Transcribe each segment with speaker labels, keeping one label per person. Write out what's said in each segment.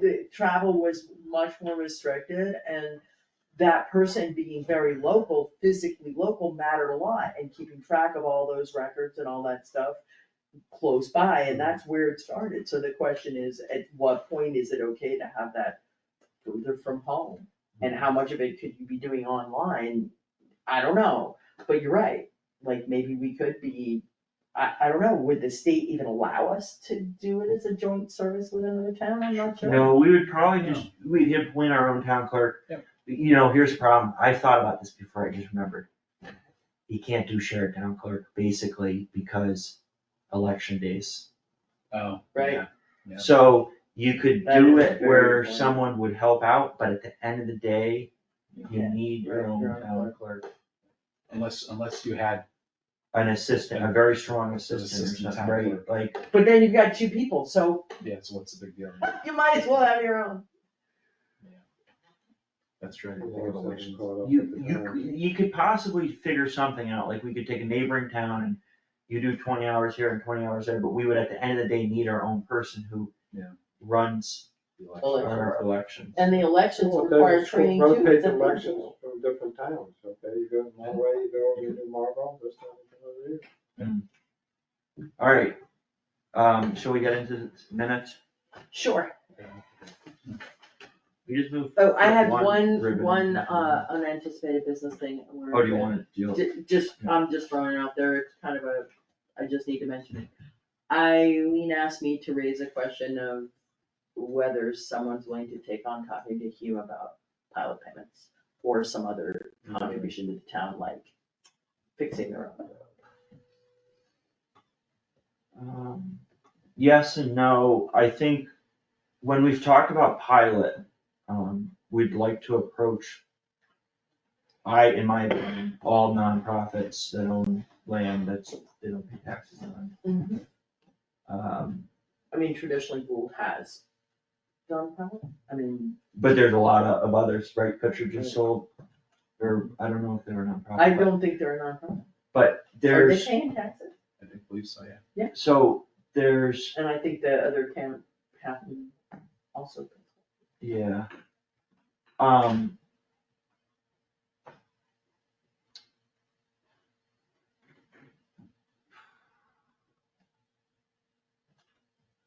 Speaker 1: the travel was much more restricted and that person being very local, physically local mattered a lot and keeping track of all those records and all that stuff close by, and that's where it started. So the question is, at what point is it okay to have that further from home? And how much of it could you be doing online? I don't know, but you're right, like maybe we could be, I, I don't know, would the state even allow us to do it as a joint service with another town? I'm not sure.
Speaker 2: No, we would probably just, we'd appoint our own town clerk.
Speaker 3: Yep.
Speaker 2: You know, here's the problem, I thought about this before, I just remembered. You can't do shared town clerk, basically, because election days.
Speaker 3: Oh.
Speaker 1: Right.
Speaker 3: yeah. Yeah.
Speaker 2: So you could
Speaker 1: That
Speaker 2: do
Speaker 1: is a
Speaker 2: it
Speaker 1: very
Speaker 2: where
Speaker 1: good point.
Speaker 2: someone would help out, but at the end of the day, you
Speaker 1: Yeah,
Speaker 2: need your
Speaker 1: right,
Speaker 2: own
Speaker 1: your own
Speaker 2: town clerk.
Speaker 3: Unless, unless you had,
Speaker 2: An assistant, a very strong assistant or
Speaker 3: assistant
Speaker 2: something,
Speaker 3: town
Speaker 2: right, like,
Speaker 1: But then you've got two people, so
Speaker 3: yeah, so what's the big deal?
Speaker 1: you might as well have your own.
Speaker 3: That's true.
Speaker 2: you, you, c- you could possibly figure something out, like we could take a neighboring town and you do twenty hours here and twenty hours there, but we would at the end of the day need our own person who
Speaker 3: Yeah.
Speaker 2: runs our elections.
Speaker 1: And the elections
Speaker 4: Well,
Speaker 1: require
Speaker 4: there's
Speaker 1: training too.
Speaker 4: rotate
Speaker 1: it's a-
Speaker 4: elections from different towns, okay, you go to Monterey, you go over to Marlboro, this time you come over here.
Speaker 2: Alright, um, shall we get into the minutes?
Speaker 1: Sure.
Speaker 2: We just moved.
Speaker 1: Oh, I had
Speaker 2: One
Speaker 1: one,
Speaker 2: ribbon.
Speaker 1: one, uh, unanticipated business thing.
Speaker 2: Oh, do you wanna deal? with it?
Speaker 1: Ju- Just, I'm just throwing it out there, it's kind of a, I just need to mention it. Eileen asked me to raise a question of whether someone's willing to take on talking to Hugh about pilot payments or some other contribution to the town, like fixing the road.
Speaker 2: Um, Yes and no, I think when we've talked about pilot, um, we'd like to approach. I, in my opinion, all nonprofits that own land that's, they don't pay taxes on.
Speaker 1: Mm-hmm.
Speaker 2: Um,
Speaker 1: I mean, traditionally Gould has done pilot, I mean,
Speaker 2: but there's a lot of of others, right, Picture just sold, or I don't know if they're a nonprofit.
Speaker 1: I don't Oh, think they're a nonprofit.
Speaker 2: But
Speaker 1: Are they
Speaker 2: there's,
Speaker 1: paying taxes?
Speaker 3: I do believe so, yeah.
Speaker 2: so there's
Speaker 1: And I think the other town, Patton also.
Speaker 2: Yeah. Um.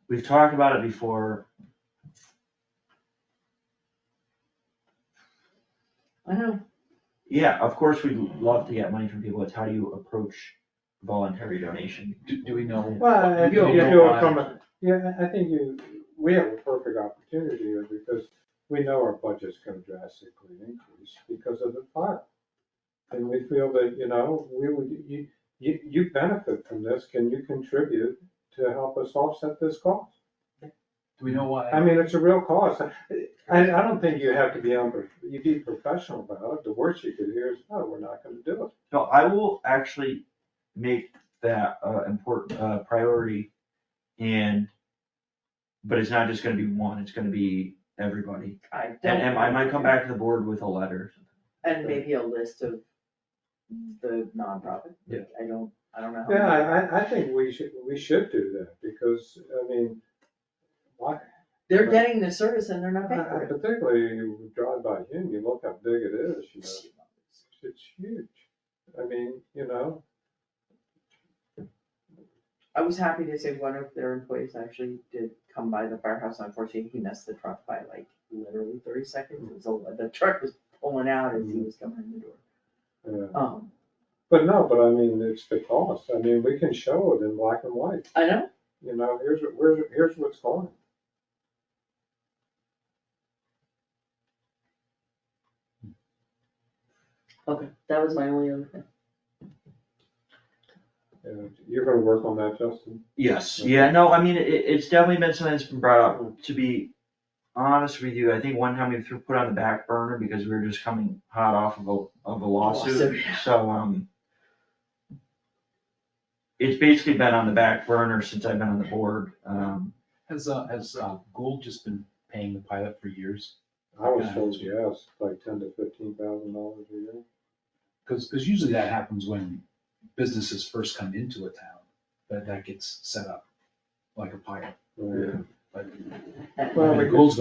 Speaker 2: We've talked about it before.
Speaker 1: I know,
Speaker 2: Yeah, of course, we'd love to get money from people. It's how do you approach voluntary donation?
Speaker 3: Do, do we know?
Speaker 4: Well,
Speaker 3: You
Speaker 4: I think
Speaker 3: don't
Speaker 4: you
Speaker 3: know
Speaker 4: do
Speaker 3: why.
Speaker 4: it from a, yeah, I I think you, we have a perfect opportunity here because we know our budget's gonna drastically increase because of the fire. And we feel that, you know, we would, you, you, you benefit from this, can you contribute to help us offset this cost?
Speaker 3: Do we know
Speaker 4: I
Speaker 3: why?
Speaker 4: mean, it's a real cost. I, I don't think you have to be on, you be professional about it. The worst you could hear is, no, we're not gonna do it.
Speaker 2: So I will actually make that uh important uh priority and. But it's not just gonna be one, it's gonna be everybody.
Speaker 1: I don't.
Speaker 2: And, and I might come back to the board with a letter.
Speaker 1: And maybe a list of the nonprofit, like, I don't, I don't know. how
Speaker 4: Yeah,
Speaker 1: many.
Speaker 4: I, I, I think we should, we should do that because, I mean, why?
Speaker 1: They're getting the service and they're not paying
Speaker 4: Uh,
Speaker 1: for
Speaker 4: Particularly you drive by Hume, you look how big it is, you know,
Speaker 1: it.
Speaker 4: it's huge. I mean, you know,
Speaker 1: I was happy to say one of their employees actually did come by the firehouse, unfortunately, he missed the truck by like literally thirty seconds, it was, a- the truck was pulling out as he was coming in the door.
Speaker 4: uh,
Speaker 1: Um,
Speaker 4: but no, but I mean, it's the cost. I mean, we can show it in black and white,
Speaker 1: I know,
Speaker 4: you know, here's, what- here's, here's what's going.
Speaker 1: okay, that was my only other thing.
Speaker 4: Uh, You're gonna work on that, Justin?
Speaker 2: Yes. Yeah, no, I mean, it, it's definitely been something that's been brought up, to be honest with you, I think one time we threw, put on the back burner because we were just coming hot off of a, of a lawsuit,
Speaker 1: Lawsuit, yeah.
Speaker 2: so, um. It's basically been on the back burner since I've been on the board, um,
Speaker 3: Has, uh, has, uh, Gould just been paying the pilot for years?
Speaker 4: I was
Speaker 3: Yeah.
Speaker 4: told yes, like ten to fifteen thousand dollars a year.
Speaker 3: Cause, 'cause usually that happens when businesses first come into a town, that, that gets set up like a pilot.
Speaker 4: Right.
Speaker 3: But
Speaker 4: Well,
Speaker 3: I mean,
Speaker 4: we could-
Speaker 3: Gould's